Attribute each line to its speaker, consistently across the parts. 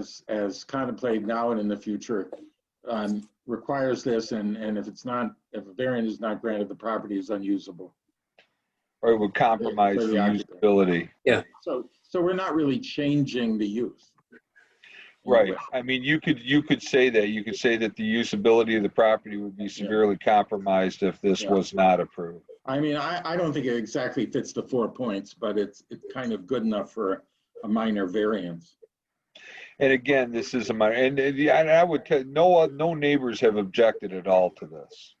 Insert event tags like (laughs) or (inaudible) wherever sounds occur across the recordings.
Speaker 1: as- as contemplated now and in the future um, requires this, and, and if it's not, if a variant is not granted, the property is unusable.
Speaker 2: Or it would compromise
Speaker 1: For
Speaker 2: the
Speaker 1: the occupant.
Speaker 2: usability.
Speaker 1: So, so we're not really changing the use.
Speaker 2: Right. I mean, you could, you could say that. You could say that the usability of the property would be severely compromised if this
Speaker 1: Yeah.
Speaker 2: was not approved.
Speaker 1: I mean, I, I don't think it exactly fits the four points, but it's, it's kind of good enough for a minor variance.
Speaker 2: And again, this is a minor, and, and yeah, and I would, tell- no, no neighbors have objected at all to this.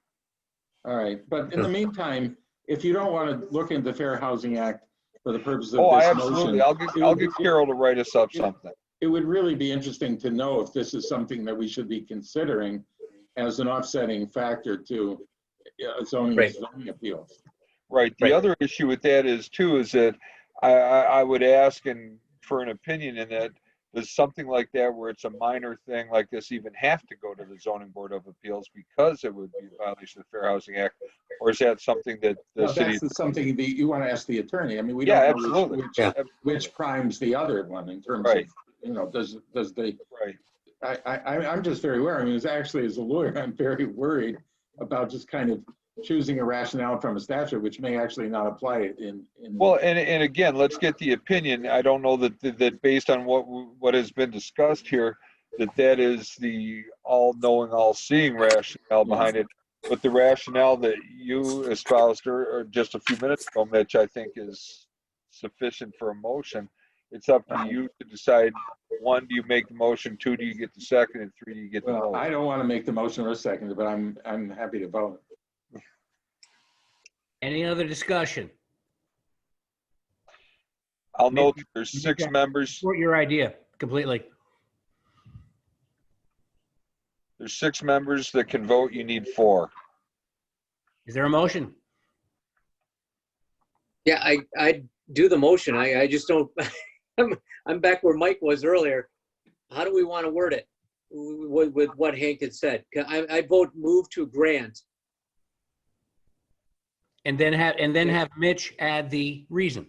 Speaker 1: All right, but in the meantime, if you don't want to look into the Fair Housing Act for the purpose of
Speaker 2: Oh, I
Speaker 1: this
Speaker 2: absolutely.
Speaker 1: motion,
Speaker 2: I'll get, I'll get Carol to write us up something.
Speaker 1: it would really be interesting to know if this is something that we should be considering as an offsetting factor to uh, zoning
Speaker 3: Right.
Speaker 1: zoning appeals.
Speaker 2: Right. The
Speaker 3: Right.
Speaker 2: other issue with that is too, is that I, I, I would ask and for an opinion in that, does something like that where it's a minor thing like this even have to go to the zoning board of appeals because it would be a violation of the Fair Housing Act? Or is that something that the
Speaker 1: Now,
Speaker 2: city?
Speaker 1: That's something that you want to ask the attorney. I mean, we
Speaker 2: Yeah,
Speaker 1: don't know
Speaker 2: absolutely.
Speaker 1: which,
Speaker 3: Yeah.
Speaker 1: which- which primes the other one in terms of,
Speaker 2: Right.
Speaker 1: you know, does, does the
Speaker 2: Right.
Speaker 1: I, I, I- I'm just very worried. I mean, as actually, as a lawyer, I'm very worried about just kind of choosing a rationale from a statute, which may actually not apply it in, in.
Speaker 2: Well, and, and again, let's get the opinion. I don't know that, that based on what, what has been discussed here, that that is the all-knowing, all-seeing rationale behind it. But the rationale that you espoused or, or just a few minutes ago, Mitch, I think is sufficient for a motion. It's up to you to decide, one, do you make the motion, two, do you get the second, and three, do you get the
Speaker 1: Well, I
Speaker 2: vote?
Speaker 1: don't want to make the motion or second, but I'm, I'm happy to vote.
Speaker 3: Any other discussion?
Speaker 2: I'll note that there's six members,
Speaker 3: Support your idea completely.
Speaker 2: there's six members that can vote, you need four.
Speaker 3: Is there a motion?
Speaker 4: Yeah, I, I do the motion. I, I just don't, (laughs) I'm, I'm back where Mike was earlier. How do we want to word it with, with what Hank had said? 'Cause I, I vote move to grant.
Speaker 3: And then have, and then have Mitch add the reason.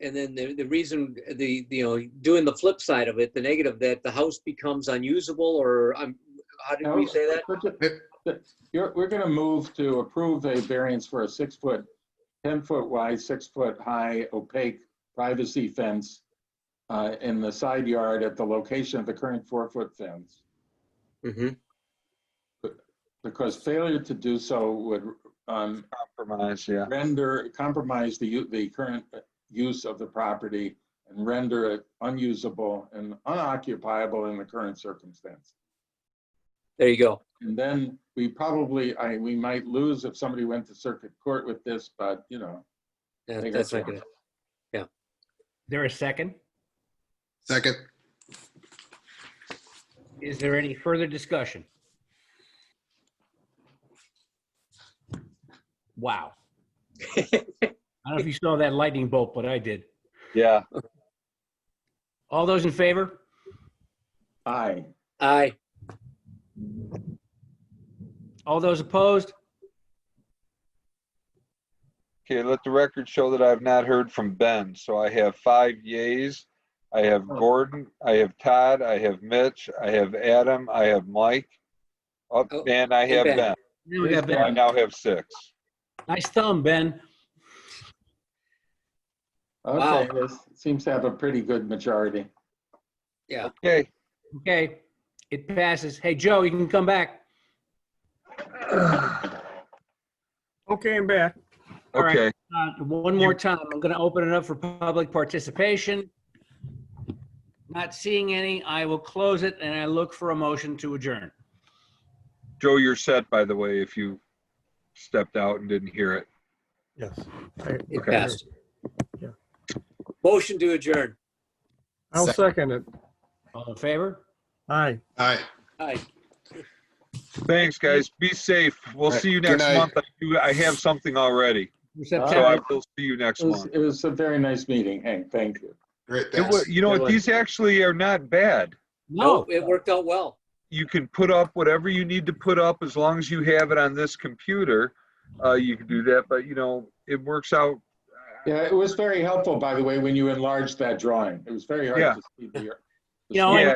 Speaker 4: And then the, the reason, the, the, you know, doing the flip side of it, the negative, that the house becomes unusable or, um, how did we say that?
Speaker 1: You're, we're going to move to approve a variance for a six-foot, 10-foot wide, six-foot high opaque privacy fence uh, in the side yard at the location of the current four-foot fence.
Speaker 2: Mm-hmm.
Speaker 4: Mhm.
Speaker 1: Because failure to do so would um,
Speaker 2: Compromise, yeah.
Speaker 1: render, compromise the, u- the current use of the property and render it unusable and unoccupiable in the current circumstance.
Speaker 4: There you go.
Speaker 1: And then we probably, I, we might lose if somebody went to circuit court with this, but you know,
Speaker 4: That-
Speaker 1: There you
Speaker 4: That's
Speaker 1: go.
Speaker 4: not good.
Speaker 3: There a second?
Speaker 5: Second.
Speaker 3: Is there any further discussion?
Speaker 4: (laughs)
Speaker 3: Wow. I don't know if you saw that lightning bolt, but I did.
Speaker 2: Yeah.
Speaker 3: All those in favor?
Speaker 1: aye.
Speaker 4: Aye,
Speaker 3: All those opposed?
Speaker 2: Okay, let the record show that I've not heard from Ben. So I have five yays. I have Gordon, I have Todd, I have Mitch, I have Adam, I have Mike. Oh,
Speaker 4: Oh,
Speaker 2: and I have
Speaker 4: Ben.
Speaker 2: Ben.
Speaker 3: There we go,
Speaker 2: So I
Speaker 3: Ben.
Speaker 2: now have six.
Speaker 3: Nice thumb, Ben.
Speaker 1: Okay, this seems to have a pretty good majority.
Speaker 4: yeah.
Speaker 2: Okay,
Speaker 3: Okay, it passes. Hey, Joe, you can come back.
Speaker 6: Okay, I'm back.
Speaker 3: All right.
Speaker 2: okay.
Speaker 3: Uh, One more time, I'm going to open it up for public participation. Not seeing any, I will close it and I look for a motion to adjourn.
Speaker 2: Joe, you're set, by the way, if you stepped out and didn't hear it.
Speaker 6: Yes.
Speaker 4: It
Speaker 2: Okay.
Speaker 4: passed.
Speaker 6: Yeah.
Speaker 4: Motion to adjourn.
Speaker 6: I'll second it.
Speaker 3: All in favor?
Speaker 6: Aye.
Speaker 5: Aye.
Speaker 4: Aye.
Speaker 2: Thanks, guys. Be safe. We'll see you
Speaker 5: Good
Speaker 2: next
Speaker 5: night.
Speaker 2: month. I do- I have something already. So Oh, I
Speaker 3: September.
Speaker 2: will see you next
Speaker 1: It was,
Speaker 2: month.
Speaker 1: it was a very nice meeting, Hank, thank you.
Speaker 5: Great,
Speaker 2: It wa-
Speaker 5: thanks.
Speaker 2: You know what? These actually are not bad.
Speaker 3: No,
Speaker 4: It worked out well.
Speaker 2: you can put up whatever you need to put up as long as you have it on this computer. Uh, you can do that, but you know, it works out.
Speaker 1: Yeah, it was very helpful, by the way, when you enlarged that drawing. It was very hard
Speaker 2: Yeah.
Speaker 1: to see the.
Speaker 3: You know,
Speaker 2: Yeah.